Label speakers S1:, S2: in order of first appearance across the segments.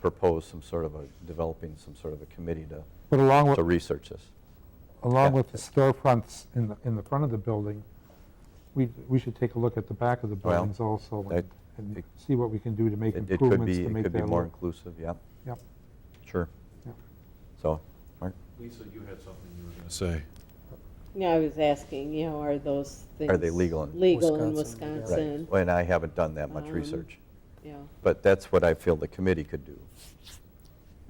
S1: propose some sort of a, developing some sort of a committee to,
S2: But along
S1: to
S2: with,
S1: research this.
S2: along
S1: yeah.
S2: with the storefronts in the, in the front of the building, we, we should take a look at the back of the
S1: Well,
S2: buildings also
S1: that-
S2: and- and
S1: it-
S2: see what we can do to make
S1: It- It could
S2: improvements
S1: be,
S2: to
S1: it
S2: make
S1: could be
S2: that
S1: more
S2: look.
S1: inclusive, yeah,
S2: Yep,
S1: sure.
S2: yep.
S1: So, Mark,
S3: Lisa, you had something you were going to say.
S4: No, I was asking, you know, are those things?
S1: Are they legal in-
S4: Legal in
S5: Wisconsin, yeah. Right.
S1: right,
S4: Wisconsin,
S1: Well, and I haven't done that much
S4: Um,
S1: research,
S4: yeah.
S1: but that's what I feel the committee could do.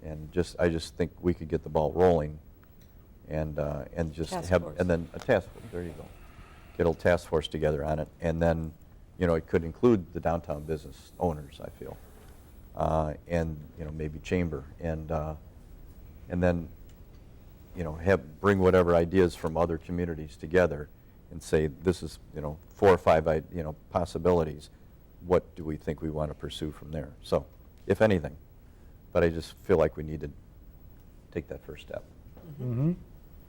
S1: And just, I just think we could get the ball rolling and, uh, and just
S5: Task
S1: have,
S5: force.
S1: and then a task force, there you go. Get a little task force together on it, and then, you know, it could include the downtown business owners, I feel. Uh, and, you know, maybe chamber, and, uh, and then, you know, have, bring whatever ideas from other communities together and say, this is, you know, four or five, i- you know, possibilities. What do we think we want to pursue from there? So, if anything. But I just feel like we need to take that first step
S2: Mhm.
S1: and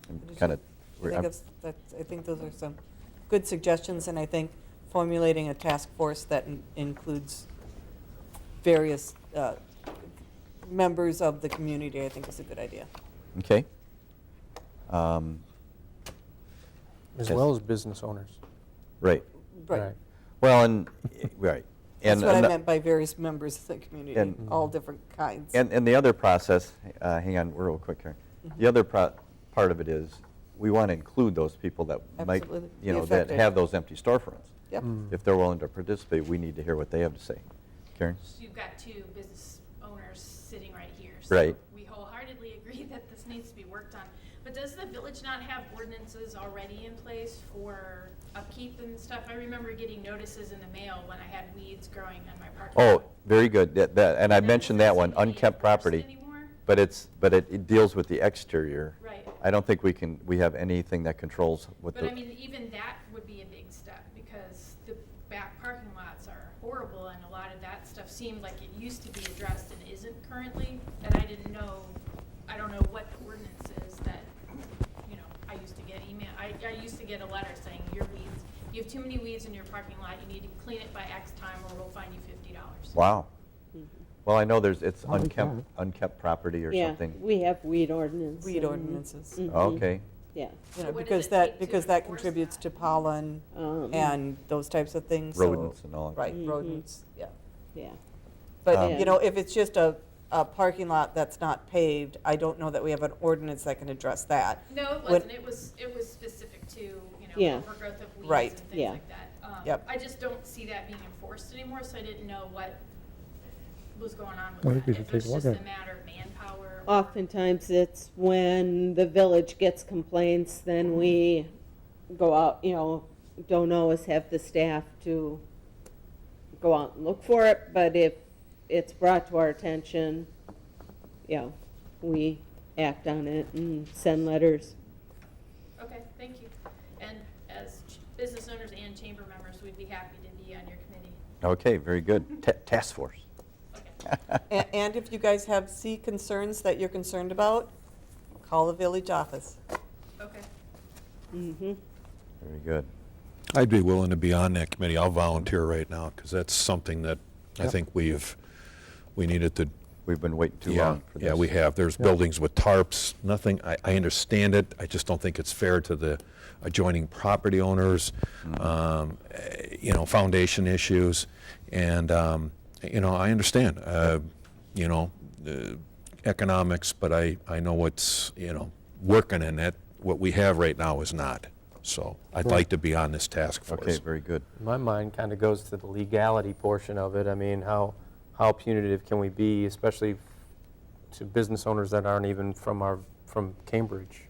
S5: Understood.
S1: kind of.
S5: I think that's, that's, I think those are some good suggestions, and I think formulating a task force that in- includes various uh, members of the community, I think is a good idea.
S1: Okay. Um,
S6: As
S1: Yes.
S6: well as business owners.
S1: Right.
S5: Right.
S1: Well, and, right.
S5: That's
S1: And
S5: what I
S1: ano-
S5: meant by various members of the community,
S1: And-
S5: all different kinds.
S1: And, and the other process, uh, hang on, real quick here.
S5: Mm-hmm.
S1: The other pro- part of it is, we want to include those people that might,
S5: Absolutely.
S1: you
S5: Be
S1: know, that
S5: affected.
S1: have those empty storefronts.
S5: Yep.
S1: If they're willing to participate, we need to hear what they have to say. Karen?
S7: So You've got two business owners sitting right here.
S1: Right.
S7: So we wholeheartedly agree that this needs to be worked on. But does the village not have ordinances already in place for upkeep and stuff? I remember getting notices in the mail when I had weeds growing on my parking lot.
S1: Oh, very good, that, that, and I
S7: Then
S1: mentioned
S7: does
S1: that one,
S7: need to be
S1: unkept
S7: enforced
S1: property.
S7: anymore?
S1: But it's, but it, it deals with the exterior.
S7: Right.
S1: I don't think we can, we have anything that controls what the.
S7: But I mean, even that would be a big step because the back parking lots are horrible and a lot of that stuff seemed like it used to be addressed and isn't currently. And I didn't know, I don't know what ordinance is that, you know, I used to get email, I, I used to get a letter saying your weeds, you have too many weeds in your parking lot, you need to clean it by X time or we'll fine you fifty dollars.
S1: Wow. Well, I know there's, it's
S2: Oh, we
S1: unkept,
S2: can.
S1: unkept property or
S4: Yeah,
S1: something. Oh,
S4: we Mm-hmm. have weed ordinances. Mm-hmm.
S5: Weed ordinances. You
S1: Okay,
S4: Yeah.
S7: So
S5: know,
S7: what
S5: because
S7: does it
S5: that,
S7: take to
S5: because that
S7: enforce
S5: contributes
S7: that?
S5: to pollen
S4: um,
S5: and those types of things. so-
S1: Rodents and all that.
S5: Right,
S4: Mhm.
S7: Mm-hmm.
S5: rodents, yeah.
S4: Yeah,
S1: Um,
S5: But, you know, if it's just a, a parking lot that's not paved, I don't know that we have an ordinance that can address that.
S7: No, it
S5: What-
S7: wasn't. It was, it was specific to, you
S4: Yeah.
S7: know, overgrowth of
S5: Right.
S7: weeds and
S4: Yeah.
S7: things like that. Um,
S5: Yep.
S7: I just don't see that being enforced anymore, so I didn't know what was going on with
S2: I
S7: that.
S2: think we should
S7: If
S2: take
S7: it's
S2: a look
S7: just
S2: at
S7: a
S2: it.
S7: matter of manpower.
S5: Uh.
S7: or-
S4: oftentimes it's when the village gets complaints, then we go out, you know, don't always have the staff to go out and look for it, but if it's brought to our attention, you know, we act on it and send letters.
S7: Okay, thank you. And as ch- business owners and chamber members, we'd be happy to be on your committee.
S1: okay, very good. Ta- Task force.
S7: Okay.
S5: A- And if you guys have C concerns that you're concerned about, call the village office.
S7: Okay.
S4: Mm-hmm.
S1: Very good.
S3: I'd be willing to be on that committee. I'll volunteer right now because that's something that I
S2: Yep.
S3: think we've, we needed to.
S1: We've been waiting too
S3: yeah,
S1: long for this.
S3: Yeah, we have. There's buildings with tarps, nothing. I, I understand it. I just don't think it's fair to the adjoining property owners,
S1: Mm.
S3: um, eh, you know, foundation issues. And, um, you know, I understand, uh, you know, uh, economics, but I, I know what's, you know, working in it. What we have right now is not. So I'd like to be on this task force.
S1: Okay, very good.
S6: My mind kind of goes to the legality portion of it. I mean, how, how punitive can we be, especially to business owners that aren't even from our, from Cambridge?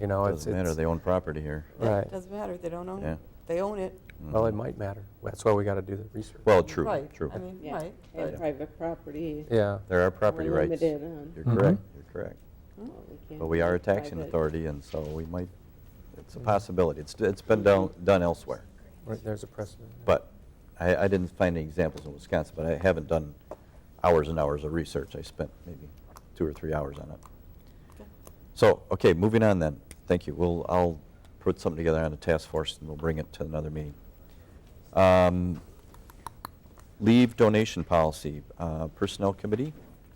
S6: You know, it's,
S1: Doesn't matter,
S6: it's,
S1: they own property here.
S6: right.
S5: Doesn't matter, they don't own
S1: Yeah.
S5: it. They own it.
S6: Well, it might matter. That's why we got to do the research.
S1: Mm-hmm. Well, true,
S5: Right,
S1: true.
S5: I mean,
S4: Yeah,
S5: right.
S4: and
S5: but-
S4: private property.
S6: Yeah.
S1: There are property
S4: We're
S1: rights. You're
S4: limited on
S1: correct, you're correct.
S4: what we can
S1: But we are a
S4: do
S1: taxing
S4: private.
S1: authority, and so we might, it's a possibility. It's, it's been done, done elsewhere.
S6: Right, there's a precedent.
S1: But I, I didn't find any examples in Wisconsin, but I haven't done hours and hours of research. I spent maybe two or three hours on it. So, okay, moving on then. Thank you. We'll, I'll put something together on a task force and we'll bring it to another meeting. Um, Leave donation policy, uh, Personnel Committee?